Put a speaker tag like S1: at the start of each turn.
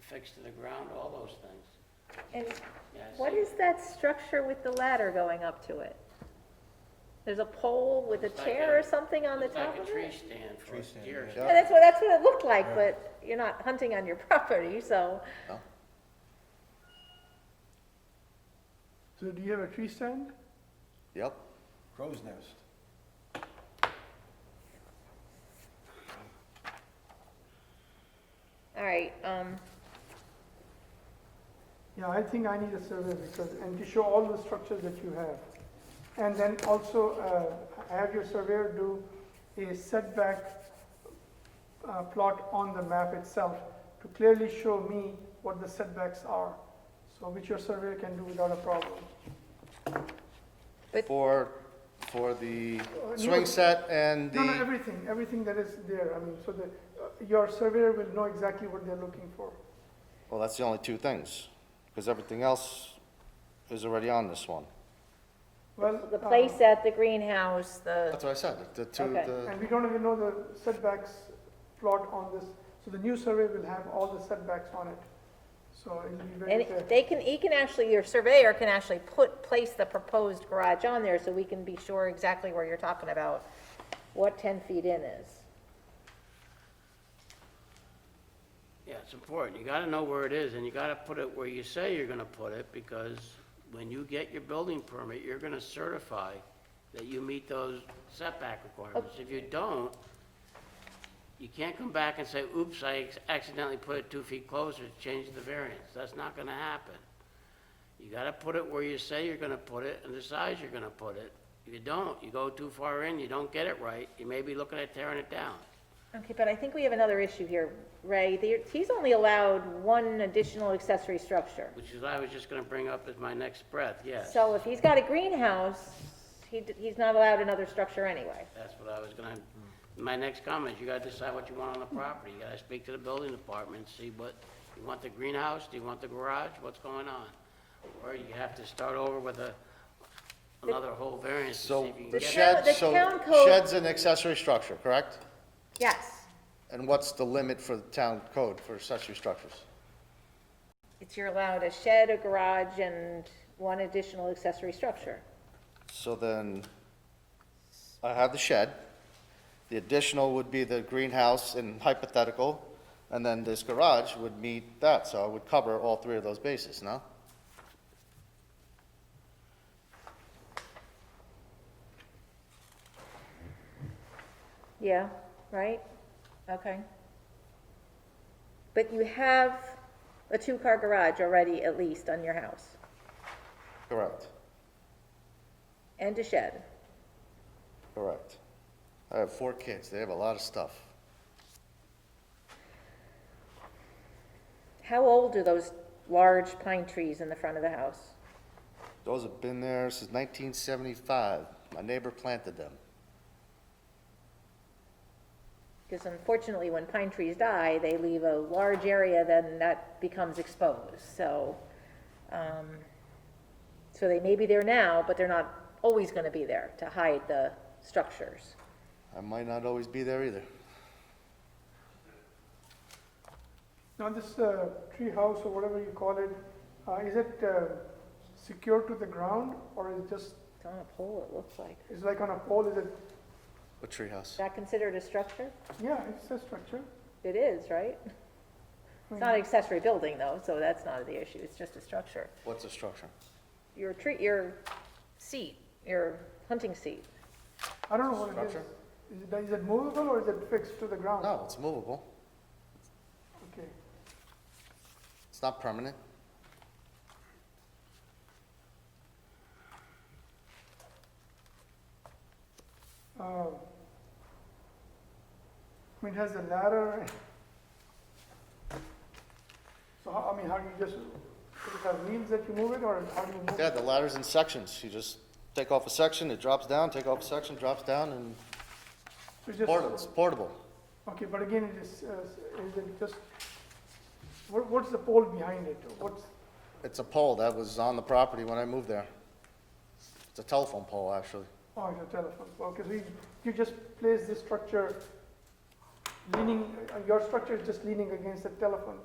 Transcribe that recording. S1: fixed to the ground, all those things,
S2: And
S1: yes.
S2: what is that structure with the ladder going up to it? There's a pole with a
S1: Looks like
S2: chair or
S1: a-
S2: something on the
S1: Looks
S2: top of
S1: Like a tree
S2: it?
S1: stand for
S3: Tree stand,
S1: deer.
S3: yeah.
S2: Yeah, that's what, that's what it looked like,
S3: Right.
S2: but you're not hunting on your property, so,
S4: So do you have a tree stand?
S5: Yep.
S3: Crow's nest.
S2: all right, um,
S4: Yeah, I think I need a survey because, and to show all the structures that you have. And then also, uh, have your surveyor do a setback uh, plot on the map itself to clearly show me what the setbacks are, so which your surveyor can do without a problem.
S2: But-
S5: For, for the
S4: Uh, no.
S5: swing set and
S4: No, no,
S5: the,
S4: everything, everything that is there, I mean, so that uh, your surveyor will know exactly what they're looking for.
S5: well, that's the only two things, because everything else is already on this one.
S4: Well,
S2: the
S4: uh,
S2: place at the greenhouse, the,
S5: That's what I said, the two,
S2: Okay.
S5: the,
S4: And we don't even know the setbacks plot on this, so the new survey will have all the setbacks on it. So it'll be
S2: and
S4: very
S2: it-
S4: clear.
S2: they can, he can actually, your surveyor can actually put, place the proposed garage on there so we can be sure exactly where you're talking about, what ten feet in is.
S1: Yeah, it's important. You gotta know where it is, and you gotta put it where you say you're gonna put it, because when you get your building permit, you're gonna certify that you meet those setback requirements. If you don't, you can't come back and say, oops, I accidentally put it two feet closer, change the variance. That's not gonna happen. You gotta put it where you say you're gonna put it and the size you're gonna put it. If you don't, you go too far in, you don't get it right, you may be looking at tearing it down.
S2: Okay, but I think we have another issue here, Ray. There- He's only allowed one additional accessory structure.
S1: Which is, I was just gonna bring up as my next breath, yes.
S2: So if he's got a greenhouse, he, d- he's not allowed another structure anyway.
S1: That's what I was gonna, my next comment, is you gotta decide what you want on the property. You gotta speak to the building department, and see what, you want the greenhouse, do you want the garage, what's going on? Or you have to start over with a, another whole variance to see
S5: so
S1: if you can
S5: the
S1: get.
S2: town-
S5: shed,
S2: the
S5: so
S2: town code-
S5: shed's an accessory structure, correct?
S2: Yes,
S5: And what's the limit for the town code for accessory structures?
S2: it's you're allowed a shed, a garage, and one additional accessory structure.
S5: So then, I have the shed, the additional would be the greenhouse in hypothetical, and then this garage would meet that, so I would cover all three of those bases, no?
S2: Yeah, right? Okay. But you have a two-car garage already, at least, on your house,
S5: Correct,
S2: and a shed.
S5: correct. I have four kids, they have a lot of stuff.
S2: How old are those large pine trees in the front of the house?
S5: Those have been there since nineteen seventy-five, my neighbor planted them.
S2: Because unfortunately, when pine trees die, they leave a large area, then that becomes exposed, so, um, so they may be there now, but they're not always gonna be there to hide the structures.
S5: I might not always be there either.
S4: Now, this uh, tree house or whatever you call it, uh, is it uh, secured to the ground or is it just,
S2: It's on a pole, it looks like.
S4: is like on a pole, is it,
S5: A treehouse.
S2: Is that considered a structure?
S4: yeah, it's a structure.
S2: It is, right? It's not an accessory building, though, so that's not the issue, it's just a structure.
S5: What's a structure?
S2: Your tree, your seat, your hunting seat.
S4: I don't know what it is.
S5: Structure?
S4: Is it, is it movable or is it fixed to the ground?
S5: No, Oh, it's movable,
S4: Okay,
S5: it's not permanent.
S4: Uh, I mean, it has a ladder. So how, I mean, how do you just, does it have wheels that you move it or how do you move
S5: Yeah,
S4: it?
S5: the ladder's in sections. You just take off a section, it drops down, take off a section, drops down, and
S4: So it's just-
S5: portable, it's portable.
S4: Okay, but again, it is, uh, is it just, what, what's the pole behind it? What's,
S5: It's a pole that was on the property when I moved there. It's a telephone pole, actually.
S4: oh, it's a telephone pole. Okay, so you, you just place this structure leaning, uh, your structure is just leaning against the telephone